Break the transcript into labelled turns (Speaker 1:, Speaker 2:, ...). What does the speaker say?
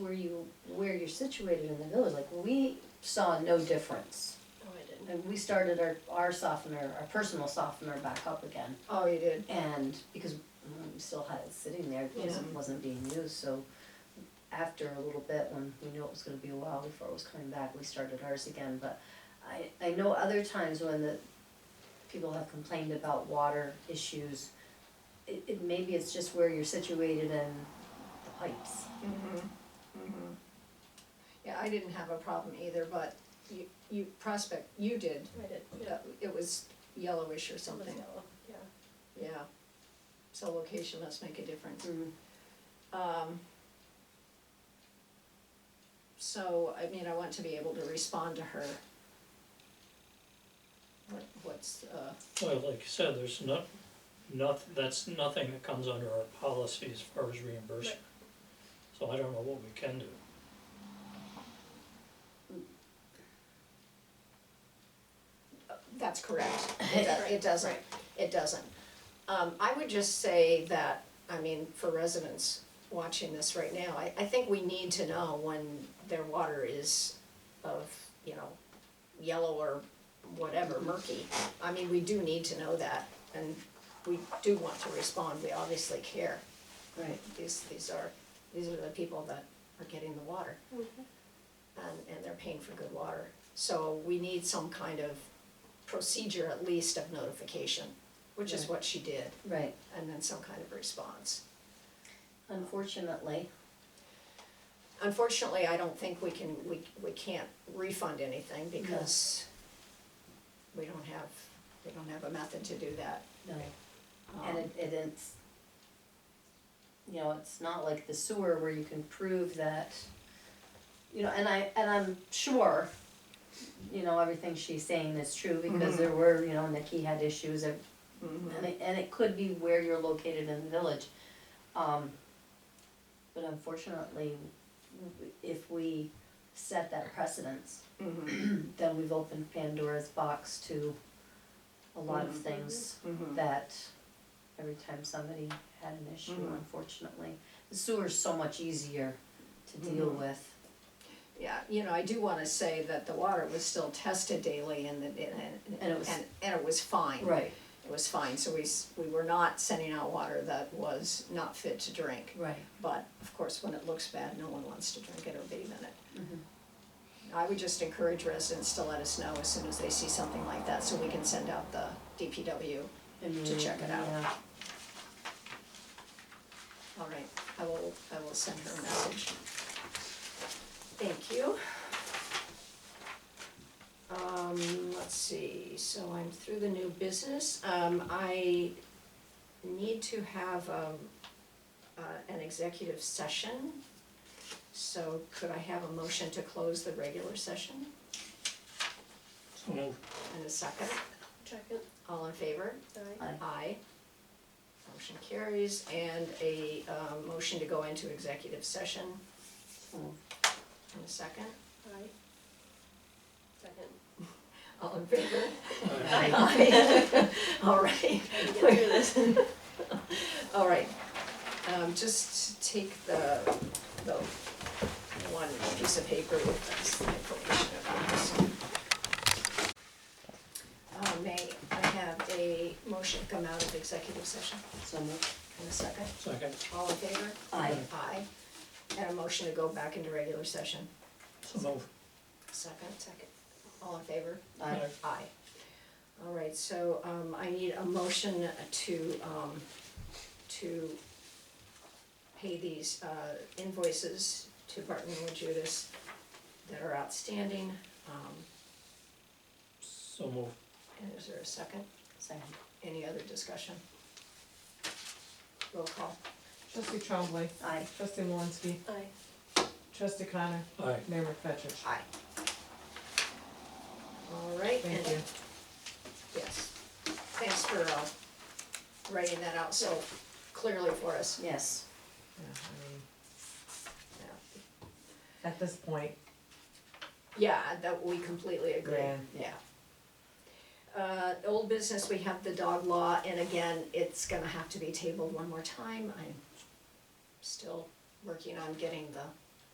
Speaker 1: where you, where you're situated in the village, like, we saw no difference.
Speaker 2: Oh, I didn't.
Speaker 1: And we started our, our softener, our personal softener back up again,
Speaker 2: Oh, you did?
Speaker 1: and because we still had it sitting there, it wasn't, wasn't being used, so after a little bit, when we knew it was gonna be a while before it was coming back, we started ours again, but I, I know other times when the people have complained about water issues, it, it, maybe it's just where you're situated and the pipes.
Speaker 2: Mm-hmm, mm-hmm. Yeah, I didn't have a problem either, but you, you, Prospect, you did.
Speaker 3: I did, yeah,
Speaker 2: Uh, It was yellowish or
Speaker 3: something
Speaker 2: something,
Speaker 3: yellow, yeah.
Speaker 2: yeah. So location must make a difference.
Speaker 1: Mm.
Speaker 2: Um, so, I mean, I want to be able to respond to her. What, what's, uh,
Speaker 4: Well, like you said, there's not, not, that's nothing that comes under our policy as far as reimbursement. So I don't know what we can do.
Speaker 2: that's correct, it does, it doesn't,
Speaker 3: Right.
Speaker 2: it doesn't. Um, I would just say that, I mean, for residents watching this right now, I, I think we need to know when their water is of, you know, yellow or whatever, murky. I mean, we do need to know that, and we do want to respond, we obviously care.
Speaker 1: Right.
Speaker 2: These, these are, these are the people that are getting the water.
Speaker 1: Mm-hmm.
Speaker 2: And, and they're paying for good water. So we need some kind of procedure at least of notification, which is
Speaker 1: Right.
Speaker 2: what she did,
Speaker 1: Right,
Speaker 2: and then some kind of response.
Speaker 1: unfortunately,
Speaker 2: Unfortunately, I don't think we can, we, we can't refund anything because we don't have, we don't have a method to do that.
Speaker 1: no,
Speaker 2: Um,
Speaker 1: and it, it is, you know, it's not like the sewer where you can prove that, you know, and I, and I'm sure, you know, everything she's saying is true, because there were, you know, Nikki had issues, and,
Speaker 2: mhm.
Speaker 1: and it, and it could be where you're located in the village. Um, but unfortunately, w- if we set that precedence,
Speaker 2: Mhm,
Speaker 1: then we've opened Pandora's box to a lot of things
Speaker 2: mhm.
Speaker 1: that every time somebody had an issue,
Speaker 2: Mhm.
Speaker 1: unfortunately. The sewer's so much easier to deal
Speaker 2: Mhm.
Speaker 1: with.
Speaker 2: Yeah, you know, I do wanna say that the water was still tested daily and, the- and,
Speaker 1: And it
Speaker 2: and,
Speaker 1: was-
Speaker 2: and it was fine.
Speaker 1: Right,
Speaker 2: it was fine, so we, s- we were not sending out water that was not fit to drink.
Speaker 1: right.
Speaker 2: But of course, when it looks bad, no one wants to drink it or bathe in it. I would just encourage residents to let us know as soon as they see something like that, so we can send out the DPW.
Speaker 1: And
Speaker 2: To
Speaker 1: we-
Speaker 2: check it out.
Speaker 1: yeah.
Speaker 2: All right, I will, I will send her a message. Thank you. Um, let's see, so I'm through the new business, um, I need to have, um, uh, an executive session. So could I have a motion to close the regular session
Speaker 4: So move.
Speaker 2: and a second,
Speaker 3: Check it,
Speaker 2: all in favor?
Speaker 3: aye.
Speaker 1: Aye.
Speaker 2: Aye. Motion carries, and a, uh, motion to go into executive session
Speaker 1: Oh,
Speaker 2: in a second.
Speaker 3: Aye. Second.
Speaker 2: All in favor?
Speaker 1: Aye.
Speaker 2: Aye. All right.
Speaker 3: Get through this.
Speaker 2: All right. Um, just take the, the one piece of paper with this information about this. Uh, may I have a motion to come out of executive session
Speaker 1: So moved.
Speaker 2: in a second?
Speaker 4: Second,
Speaker 2: All in favor?
Speaker 1: Aye.
Speaker 2: Aye. And a motion to go back into regular session.
Speaker 4: so move.
Speaker 2: Second? Second. All in favor?
Speaker 1: Aye.
Speaker 2: Aye. All right, so, um, I need a motion to, um, to pay these, uh, invoices to Barton and Judas that are outstanding. Um,
Speaker 4: So move.
Speaker 2: and is there a second?
Speaker 1: Second.
Speaker 2: Any other discussion? Roll call.
Speaker 5: Trustee Trombley,
Speaker 1: Aye.
Speaker 5: trustee Malinsky,
Speaker 3: Aye.
Speaker 5: trustee Connor,
Speaker 4: Aye.
Speaker 5: Mayor McFetrich.
Speaker 2: Aye. All right, and
Speaker 5: Thank you.
Speaker 2: Yes, thanks for uh, writing that out so clearly for us.
Speaker 1: Yes.
Speaker 5: Yeah, I mean,
Speaker 2: Yeah,
Speaker 5: At this point,
Speaker 2: Yeah, that we completely agree,
Speaker 5: Yeah.
Speaker 2: yeah. Uh, old business, we have the dog law, and again, it's gonna have to be tabled one more time, I'm still working on getting the